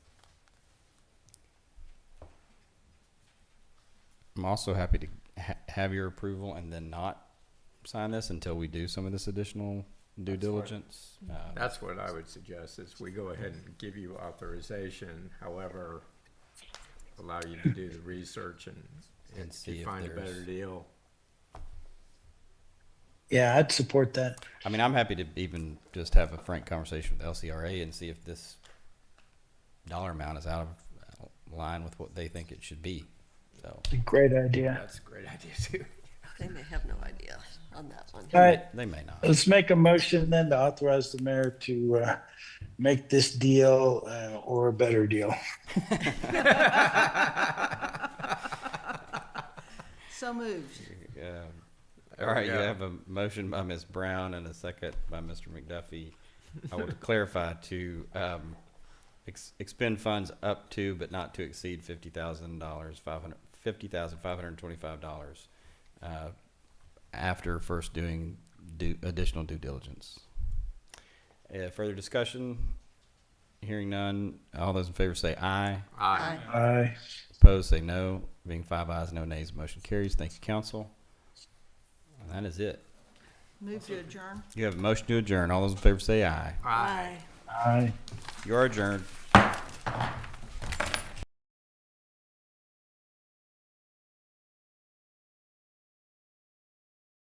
I'm also happy to ha- have your approval and then not sign this until we do some of this additional due That's Mm-hmm. fine. diligence. Um, That's what I would suggest, is we go ahead and give you authorization, however, allow you to do the research and, And and see to if find a better there's- deal. Yeah, I'd support that. I mean, I'm happy to even just have a frank conversation with LCRA and see if this dollar amount is out of out of line with what they think it should be. So Great idea. That's a great idea too. They may have no idea on that one. All right, they may not. let's make a motion then to authorize the mayor to uh, make this deal uh, or a better deal. So moved. Um, all right, you yeah. have a motion by Ms. Brown and a second by Mr. McDuffie. I will clarify to um, ex- expend funds up to but not to exceed fifty thousand dollars, five hundred fifty thousand five hundred twenty-five dollars uh, after first doing due, additional due diligence. Uh, further discussion? Hearing none. All those in favor say aye. Aye. Aye. Opposed, say no. Being five ayes, no nays, motion carries. Thank you, council. And that is it. Move to adjourn. You have a motion to adjourn. All those in favor say aye. Aye. Aye. You are adjourned.